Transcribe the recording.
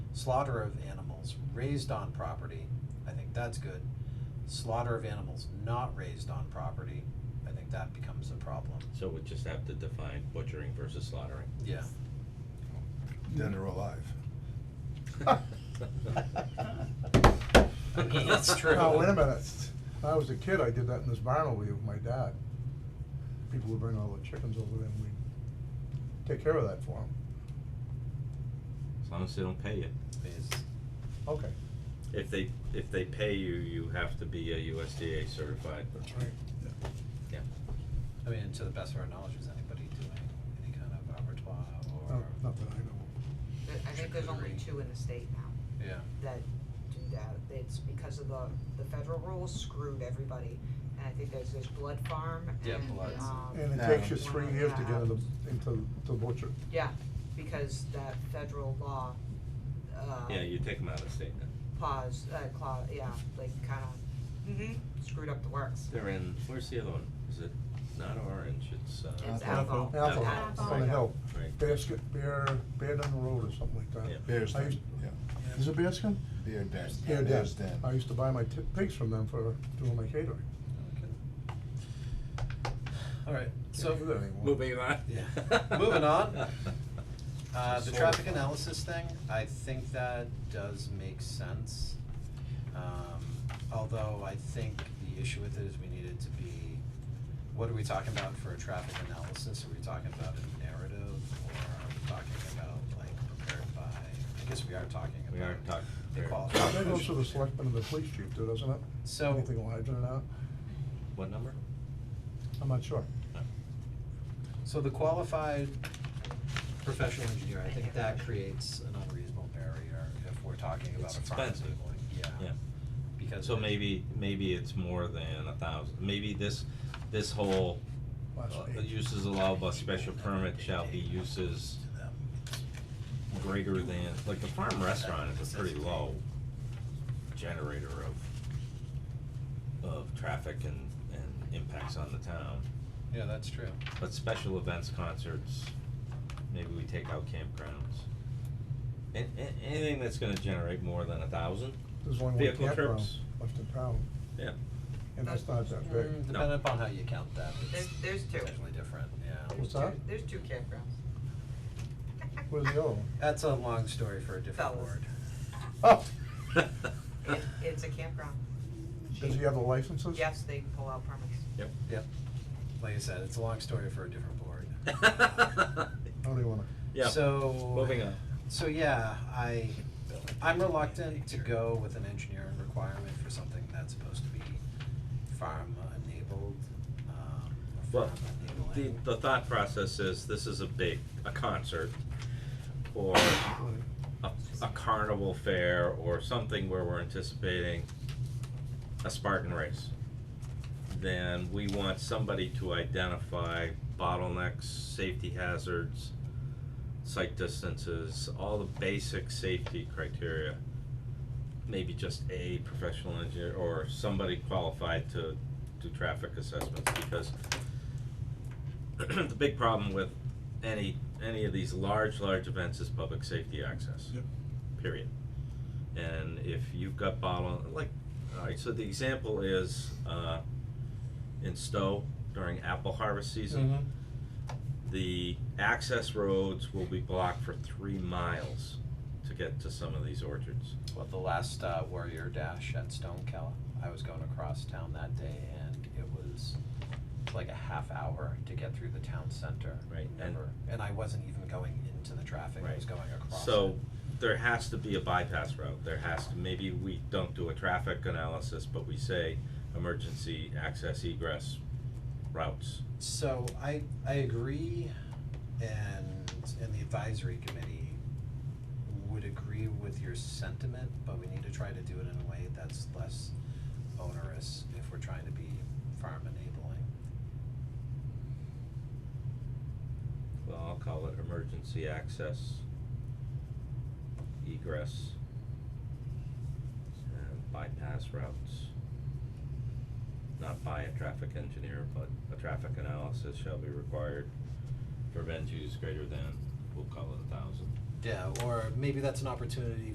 slaughter of animals raised on property, I think that's good. Slaughter of animals not raised on property, I think that becomes a problem, So we just have to define butchering versus slaughtering. yeah. Then they're alive. That's true. Now, wait a minute, when I was a kid, I did that in this barn over here with my dad. People would bring all the chickens over there and we'd take care of that for them. As long as they don't pay you. Is, Okay. If they, if they pay you, you have to be a USDA certified. That's right. Yeah. I mean, to the best of our knowledge, is anybody doing any kind of abattoir No, or, not that I know There- I think there's only two in the state now yeah, that do that, it's because of the, the federal rules screwed everybody, and I think there's this Blood Farm Yeah, and, Bloods. um. of. And it No. takes you three one years to that- get into, into the butcher. Yeah, because that federal law, uh. Yeah, you take them out of state then. Pause, uh, claw, yeah, like kinda, mm-hmm, screwed up the works. They're in, where's the other one? Is it not orange, it's uh. It's Apple. Apple. Apple, Apple. on the hill. Right. Basket, bear, bear down the road or something like Yeah. that. Bear's I used- Den, yeah. Is it bearskin? Bear Den. Bear den. Bear's Den. I used to buy my ti- pigs from them for doing my catering. alright, so. Can't do that anymore. Moving on. Yeah. Moving on. Uh, the Solar traffic farm. analysis thing, I think that does make sense. Um, although I think the issue with it is we needed to be, what are we talking about for a traffic analysis? Are we talking about a narrative or are we talking about like prepared by, I guess we are talking about. We are talking the prepared. qualifications. That goes to the selectmen and the police chief too, doesn't it? So- Anything will happen or not, What number? I'm not sure. So the qualified professional engineer, I think that creates an unreasonable barrier if we're talking about It's a farm expensive. sibling, yeah. Yeah. Because. So it- maybe, maybe it's more than a thousand, maybe this, this whole, Last uh, page. uses allowed by special permit shall be uses greater than, like the farm restaurant is a pretty low generator of, of traffic and, and impacts on the town. Yeah, that's true. But special events, concerts, maybe we take out campgrounds. And, and anything that's gonna generate more than a thousand, There's only one Vehicle campground trips. left in town, yeah, and that's not that big. Mm, Depending upon how you count that, There's, it's there's two, potentially different, yeah. What's that? there's two campgrounds. Where's the other one? That's a long story for a different Fellas. word. Oh, It, it's a campground, does he have the licenses? yes, they pull out permits. Yep. Like I said, it's a long story for a different board. I don't even wanna, yeah, So. moving on. So yeah, I, I'm reluctant to go with an engineering requirement for something that's supposed to be farm enabled, um, or Well, farm the, enabling. the thought process is, this is a big, a concert, or a, a carnival fair, or something where we're anticipating a Spartan race. Then we want somebody to identify bottlenecks, safety hazards, sight distances, all the basic safety criteria. Maybe just a professional engineer or somebody qualified to do traffic assessments, because the big problem with any, any of these large, large events is public safety access. Yep. Period. And if you've got bottle, like, alright, so the example is, uh, in Stowe during apple harvest season Mm-hmm. the access roads will be blocked for three miles to get to some of these orchards. Well, the last uh, Warrior Dash at Stonekell, I was going across town that day and it was like a half hour to get through the town center. Right, and- Never, and I wasn't even going into the traffic, I was going across it. So there has to be a bypass route, there has to, maybe we don't do a traffic analysis, but we say emergency access egress routes. So I, I agree, and, and the advisory committee would agree with your sentiment, but we need to try to do it in a way that's less onerous if we're trying to be farm enabling. Well, I'll call it emergency access egress and bypass routes. Not by a traffic engineer, but a traffic analysis shall be required for event use greater than, we'll call it a thousand. Yeah, or maybe that's an opportunity